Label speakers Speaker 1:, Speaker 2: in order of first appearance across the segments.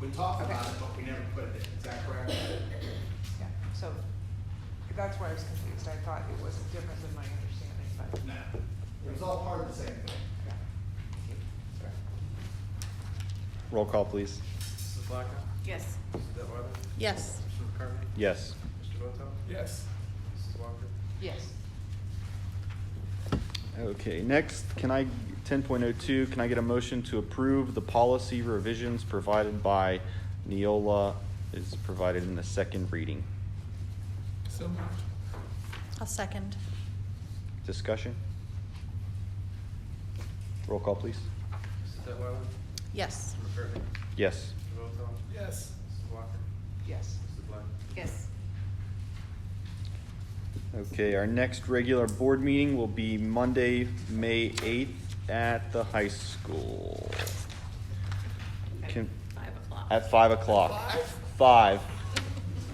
Speaker 1: We talked
Speaker 2: Okay.
Speaker 1: about it, but we never put it in, is that correct?
Speaker 2: Yeah, so that's why I was confused. I thought it was different than my understanding, but.
Speaker 1: No, it was all part of the same thing.
Speaker 2: yeah.
Speaker 3: Roll call, please.
Speaker 4: Mrs. Blackham?
Speaker 5: Yes.
Speaker 4: Mrs. Detwiler?
Speaker 5: Yes.
Speaker 4: Mr. McCartney?
Speaker 3: Yes.
Speaker 4: Mr. Voto?
Speaker 6: Yes.
Speaker 4: Mrs. Walker?
Speaker 2: Yes.
Speaker 3: Okay, next, can I, ten point oh two, can I get a motion to approve the policy revisions provided by Neola is provided in the second reading?
Speaker 6: So moved.
Speaker 5: I'll second.
Speaker 3: Discussion? Roll call, please.
Speaker 4: Mrs. Detwiler?
Speaker 5: Yes.
Speaker 4: Mr. McCartney?
Speaker 3: Yes.
Speaker 4: Mr. Voto?
Speaker 6: Yes.
Speaker 4: Mrs. Walker?
Speaker 2: Yes.
Speaker 4: Mrs. Black?
Speaker 5: Yes.
Speaker 3: Okay, our next regular board meeting will be Monday, May eighth at the high school. Can,
Speaker 5: Five o'clock.
Speaker 3: at five o'clock. Five?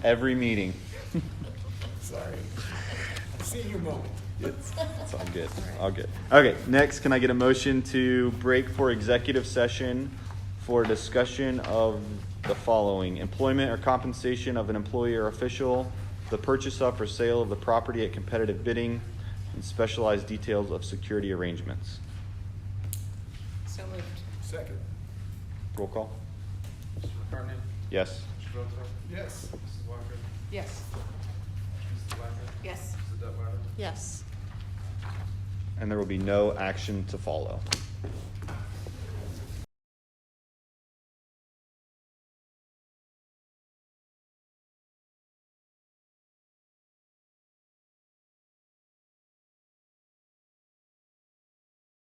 Speaker 3: Every meeting.
Speaker 6: Sorry. Senior moment.
Speaker 3: It's, it's all good. All good. Okay, next, can I get a motion to break for executive session for discussion of the following employment or compensation of an employee or official, the purchase of or sale of the property at competitive bidding, and specialized details of security arrangements.
Speaker 5: So moved.
Speaker 6: Second.
Speaker 3: Roll call.
Speaker 4: Mr. McCartney?
Speaker 3: Yes.
Speaker 4: Mr. Voto?
Speaker 6: Yes.
Speaker 4: Mrs. Walker?
Speaker 2: Yes.
Speaker 4: Mrs. Blackham?
Speaker 5: Yes.
Speaker 4: Mrs. Detwiler?
Speaker 5: Yes.
Speaker 3: And there will be no action to follow.